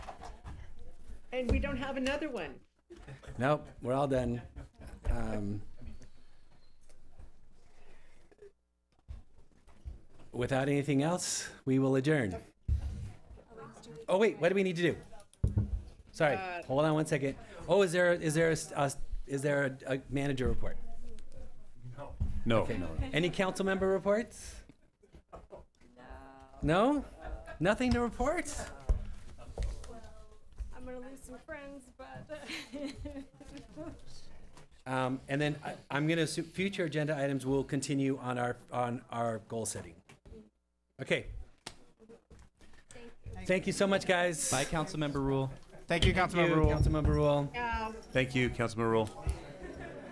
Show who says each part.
Speaker 1: And we don't have another one.
Speaker 2: Nope, we're all done. Um, without anything else, we will adjourn. Oh wait, what do we need to do? Sorry,
Speaker 1: Uh,
Speaker 2: hold on one second. Oh, is there is there a, s- a s- is there a, a manager report?
Speaker 3: No,
Speaker 2: Okay.
Speaker 3: no, no.
Speaker 2: Any council member reports? No. No? Nothing to report?
Speaker 4: I'm gonna lose some friends, but
Speaker 2: Um, and then I, I'm going to assume future agenda items will continue on our, on our goal setting. Okay. Thank you so much, guys.
Speaker 5: By council member rule.
Speaker 6: Thank you, Councilmember Rule.
Speaker 2: Councilmember Rule.
Speaker 1: Uh,
Speaker 3: Thank you, Councilman Rule.